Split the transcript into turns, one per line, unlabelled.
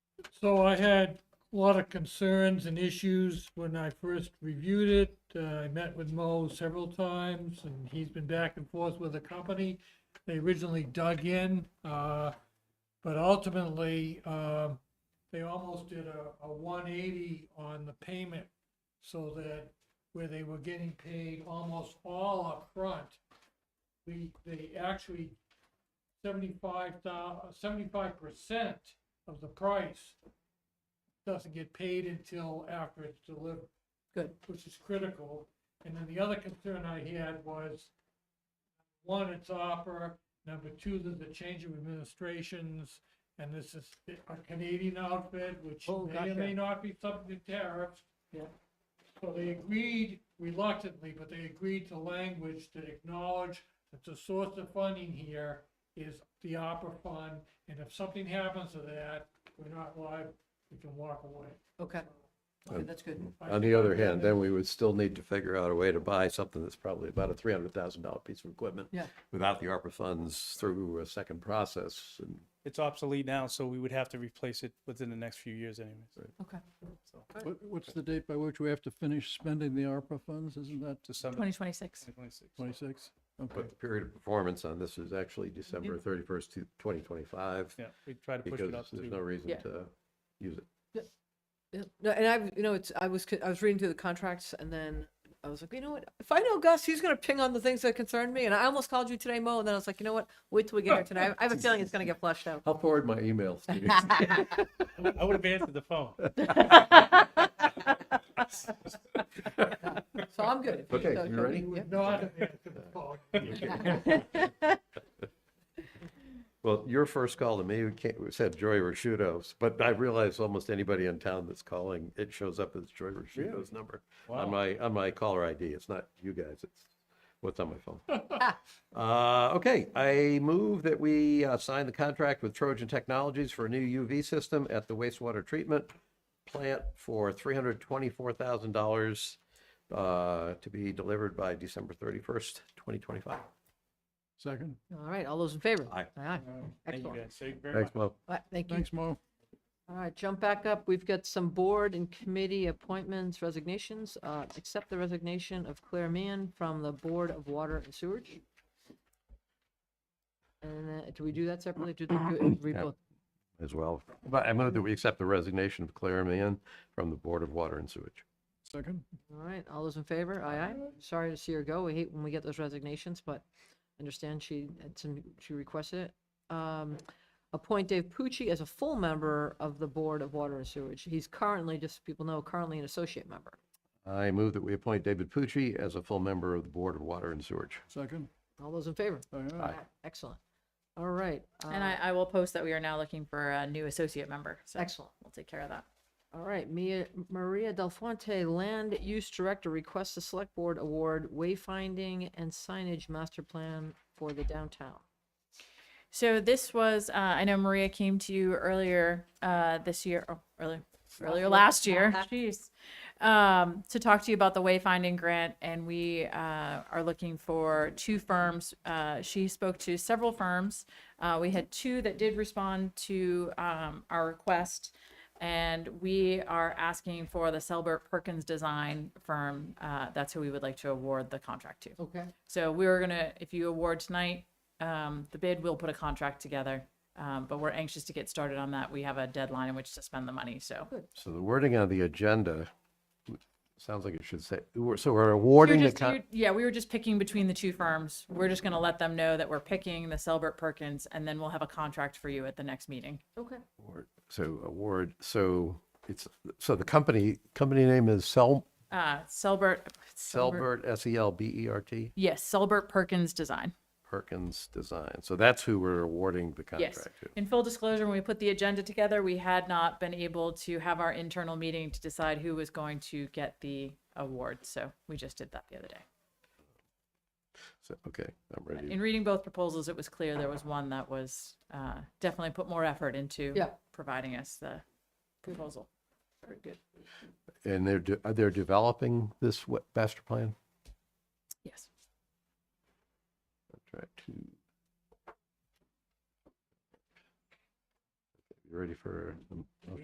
So I had a lot of concerns and issues when I first reviewed it. Uh, I met with Mo several times and he's been back and forth with the company. They originally dug in, uh, but ultimately, um, they almost did a, a one eighty on the payment. So that where they were getting paid almost all upfront, we, they actually seventy-five percent of the price doesn't get paid until after it's delivered.
Good.
Which is critical. And then the other concern I had was, one, it's opera, number two, there's a change of administrations, and this is a Canadian outfit, which
Oh,
may or may
gotcha.
not be subject to tariffs.
Yeah.
So they agreed reluctantly, but they agreed to language that acknowledge that the source of funding here is the opera fund, and if something happens to that, we're not live, we can walk away.
Okay. Okay, that's good.
I-
On the other hand, then we would still need to figure out a way to buy something that's probably about a three hundred thousand dollar piece of equipment.
Yeah.
Without the ARPA funds through a second process and
It's obsolete now, so we would have to replace it within the next few years anyways.
Okay.
So
What, what's the date by which we have to finish spending the ARPA funds? Isn't that
um,
December
2026.
2026.
twenty-six? Okay,
But the period of performance on this is actually December thirty-first to twenty twenty-five,
Yeah, we try to push
because
it up
there's no
to,
reason
Yeah.
to use it.
Yeah, No, and I, you know, it's, I was, co- I was reading through the contracts and then I was like, you know what? If I know Gus, he's going to ping on the things that concern me. And I almost called you today, Mo, and then I was like, you know what? Wait till we get here tonight. I have a feeling it's going to get flushed out.
I'll forward my emails to you.
I would have answered the phone.
So I'm good.
Okay,
So,
you
Toby,
ready?
We
yep.
would not have answered the phone.
Well, your first call to me, we can't, we said Joy Rashudos, but I realize almost anybody in town that's calling, it shows up as Joy Rashudos number.
Wow.
On my, on my caller ID, it's not you guys, it's what's on my phone. Uh, okay, I move that we uh, sign the contract with Trojan Technologies for a new UV system at the wastewater treatment plant for three hundred twenty-four thousand dollars uh, to be delivered by December thirty-first, twenty twenty-five.
second.
All right, all those in favor?
Aye.
Aye, aye.
Thank you
Excellent.
guys so very much.
Thanks, Mo.
All right, Thank you.
Thanks, Mo.
All right, jump back up. We've got some board and committee appointments, resignations. Uh, Accept the resignation of Claire Mann from the Board of Water and Sewerage. And uh, do we do that separately? Do do- read
Yeah.
both?
as well. But I move that we accept the resignation of Claire Mann from the Board of Water and Sewage.
Second,
All right, all those in favor? Aye, aye. Sorry to see her go. We hate when we get those resignations, but I understand she, had some- she requested it. Um, Appoint Dave Pucci as a full member of the Board of Water and Sewerage. He's currently, just so people know, currently an associate member.
I move that we appoint David Pucci as a full member of the Board of Water and Sewage.
second.
All those in favor?
Aye, aye.
Aye. Excellent. All right.
And
uh,
I, I will post that we are now looking for a new associate member. So
Excellent.
We'll take care of that.
All right, Mia, Maria Del Fuente, Land Use Director, requests the Select Board award wayfinding and signage master plan for the downtown.
So this was, uh, I know Maria came to you earlier uh, this year, oh, earlier, earlier last year. Jeez. Um, to talk to you about the wayfinding grant, and we uh, are looking for two firms. Uh, she spoke to several firms. Uh, we had two that did respond to um, our request, and we are asking for the Selbert Perkins Design firm. Uh, that's who we would like to award the contract to.
Okay.
So we were gonna, if you award tonight, um, the bid, we'll put a contract together. Um, but we're anxious to get started on that. We have a deadline in which to spend the money, so.
So the wording on the agenda, sounds like it should say, so we're awarding
You're
the
just-
con-
you're- Yeah, we were just picking between the two firms. We're just gonna let them know that we're picking the Selbert Perkins, and then we'll have a contract for you at the next meeting.
Okay.
award- so award, so it's, so the company, company name is Sel,
Uh, Selbert.
Selbert, E S-E-L-B-E-R-T,
Yes, Selbert Perkins Design.
Perkins Design. So that's who we're awarding the
Yes.
contract to.
In full disclosure, when we put the agenda together, we had not been able to have our internal meeting to decide who was going to get the award, so we just did that the other day.
So, okay, I'm
But
ready.
In reading both proposals, it was clear there was one that was uh, definitely put more effort into
Yeah.
providing us the proposal. Very good.
And they're, de- they're developing this what, master plan?
Yes.
Try to. You ready for a motion?